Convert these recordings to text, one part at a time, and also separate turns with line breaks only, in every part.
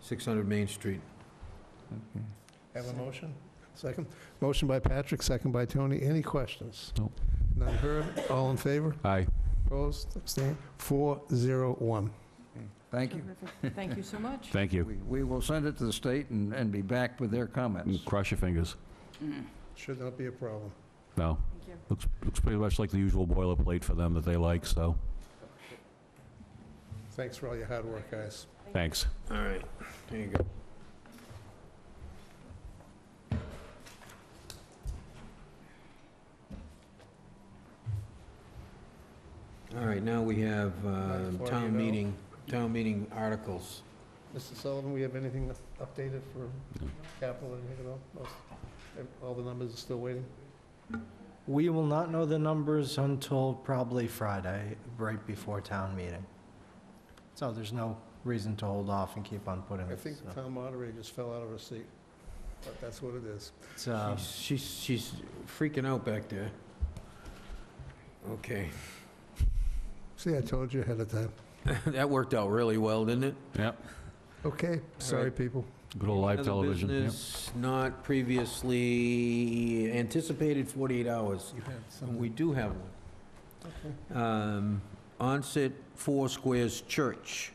600 Main Street.
Have a motion? Second. Motion by Patrick, second by Tony. Any questions?
No.
None heard. All in favor?
Aye.
Opposed? Abstained? Four, zero, one.
Thank you.
Terrific. Thank you so much.
Thank you.
We we will send it to the state and and be back with their comments.
Cross your fingers.
Should not be a problem.
No,
Thank you.
looks, looks pretty much like the usual boilerplate for them that they like, so,
Thanks for all your hard work, guys.
thanks.
Mm. All right, there you go. All right, now we have um,
Before you
town
go.
meeting, town meeting articles.
Mr. Sullivan, we have anything updated for capital, anything at all? Most- All the numbers are still waiting?
We will not know the numbers until probably Friday, right before town meeting. So there's no reason to hold off and keep on putting
I
it.
think the
so.
town moderator just fell out of her seat, but that's what it is.
It's, uh,
She's- She's, she's freaking out back there. Okay,
See, I told you ahead of time.
that worked out really well, didn't it?
Yep,
Okay, sorry, people.
good old live
Other
television. yep.
business not previously anticipated 48 hours.
You had
And
something.
We do have one. Um, Onset Four Squares Church,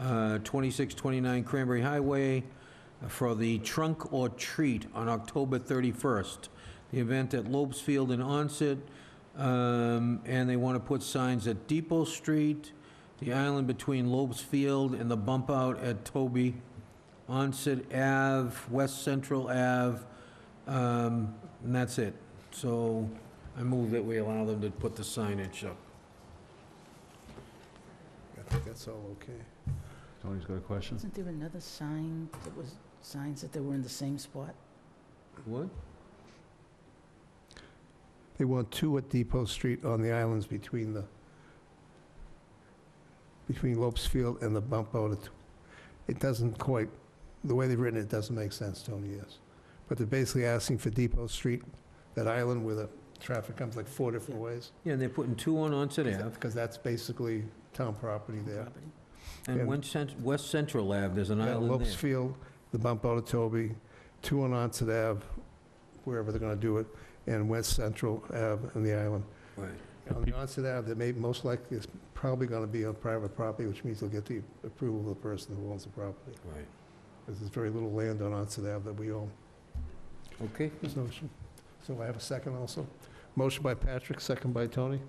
uh, 2629 Cranberry Highway, uh, for the Trunk or Treat on October 31st. The event at Lopes Field in Onset, um, and they want to put signs at Depot Street, the island between Lopes Field and the bump out at Toby, Onset Ave, West Central Ave, um, and that's it. So I move that we allow them to put the signage up.
I think that's all okay.
Tony's got a question?
Wasn't there another sign that was, signs that they were in the same spot?
What?
They want two at Depot Street on the islands between the, between Lopes Field and the bump out. at- It doesn't quite, the way they've written it doesn't make sense, Tony, yes. But they're basically asking for Depot Street, that island where the traffic comes like four different ways.
Yeah, and they're putting two on Onset Ave,
Because that's basically town property there.
Property.
and
And-
one cent- West Central Ave, there's an
Yeah,
island
Lopes
there.
Field, the bump out of Toby, two on Onset Ave, wherever they're gonna do it, and West Central Ave and the island.
Right.
On the onset of that may, most likely, it's probably going to be on private property, which means they'll get the approval of the person who owns the property.
Right.
Because there's very little land on onset Ave that we own.
Okay,
There's no issue. So I have a second also. Motion by Patrick, second by Tony.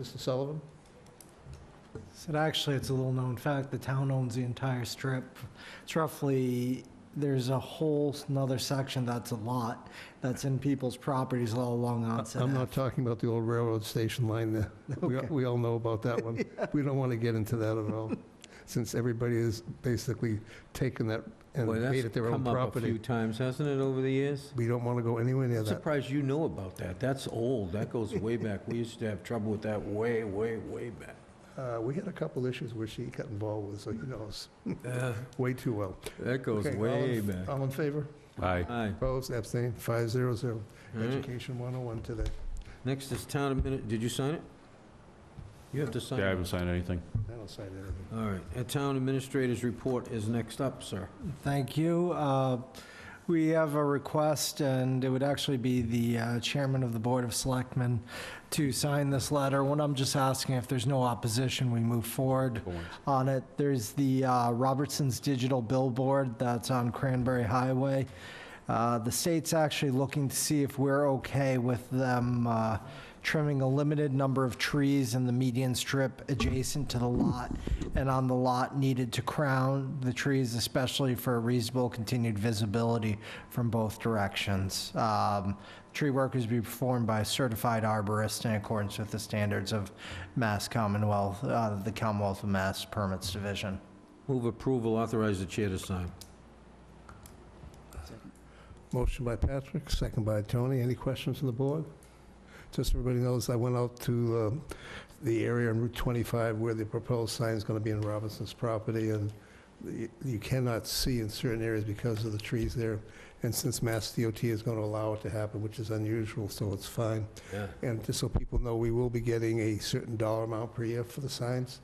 Mr. Sullivan?
So actually, it's a little known fact, the town owns the entire strip. It's roughly, there's a whole nother section that's a lot, that's in people's properties all along Onset
I'm
Ave.
not talking about the old railroad station line there. We,
Okay.
we all know about that one. We don't want to get into that at all, since everybody has basically taken that and
boy,
made
that's
it their own
come up a few
property.
times, hasn't it, over the years?
We don't want to go anywhere near
I'm
that.
surprised you know about that, that's old, that goes way back, we used to have trouble with that way, way, way back.
Uh, We had a couple issues which he got involved with, so he knows
Uh,
way too well.
That goes
Okay, Oh. all
way
in-
back.
All in favor?
Aye.
Aye.
Opposed, abstained, five zero zero.
All right.
Education 101 today.
Next is town admin, did you sign it? You have to sign it.
Yeah, I haven't signed anything.
I don't sign anything.
All right, a town administrator's report is next up, sir.
Thank you. Uh, We have a request, and it would actually be the uh, chairman of the Board of Selectmen to sign this letter. What I'm just asking, if there's no opposition, we move forward on it. There's the uh, Robertson's Digital Billboard that's on Cranberry Highway. Uh, The state's actually looking to see if we're okay with them uh, trimming a limited number of trees in the median strip adjacent to the lot and on the lot needed to crown the trees, especially for reasonable continued visibility from both directions. Um, Tree work is to be performed by a certified arborist in accordance with the standards of Mass Commonwealth, uh, the Commonwealth of Mass Permits Division.
Move approval, authorize the chair to sign.
Motion by Patrick, second by Tony. Any questions from the board? Just so everybody knows, I went out to um, the area on Route 25 where the proposed sign is going to be in Robinson's property, and y- you cannot see in certain areas because of the trees there. And since Mass DOT is going to allow it to happen, which is unusual, so it's fine.
Yeah.
And just so people know, we will be getting a certain dollar amount per year for the signs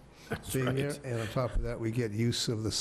being there.
right.
And on top of that, we get use of the